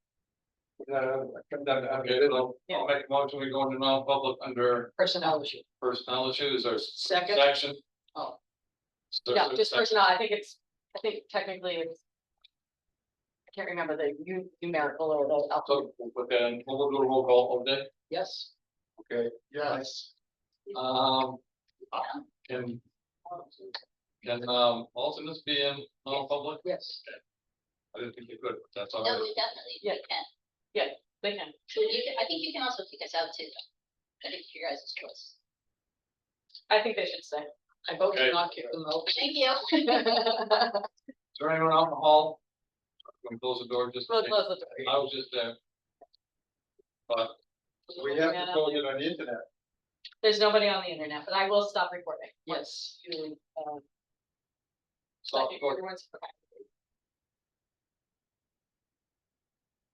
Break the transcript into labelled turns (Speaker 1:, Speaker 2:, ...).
Speaker 1: uh, conduct, okay, it'll, I'll make a motion, we go into non-public under
Speaker 2: personnel issue.
Speaker 1: personnel issues or s-
Speaker 2: Second,
Speaker 1: section.
Speaker 2: Oh.
Speaker 1: So-
Speaker 2: no,
Speaker 1: so-
Speaker 2: just personnel, I think it's, I think technically it's. I can't remember the nu- numerical or the alphabet,
Speaker 1: So, we'll put that in, we'll do a roll call all day,
Speaker 2: yes,
Speaker 1: okay? Yes. Um, can, can, um, alternates be in non-public?
Speaker 2: yes,
Speaker 1: I didn't think you could, but that's all
Speaker 3: No,
Speaker 1: right.
Speaker 3: we definitely,
Speaker 2: Yeah.
Speaker 3: we can,
Speaker 2: they can,
Speaker 3: But you can- I think you can also kick us out too. though. I think your guys' choice.
Speaker 2: I think they should say, I vote
Speaker 1: Okay.
Speaker 2: to not kick them out.
Speaker 3: Thank you.
Speaker 1: Is there anyone out in the hall? Can we close the door just?
Speaker 2: We'll close the door.
Speaker 1: I was just there. But we have to go it on the internet.
Speaker 2: There's nobody on the internet, but I will stop recording.
Speaker 1: Yes.
Speaker 2: Once you, um,
Speaker 1: Stop
Speaker 2: second-
Speaker 1: recording.
Speaker 2: everyone's- okay.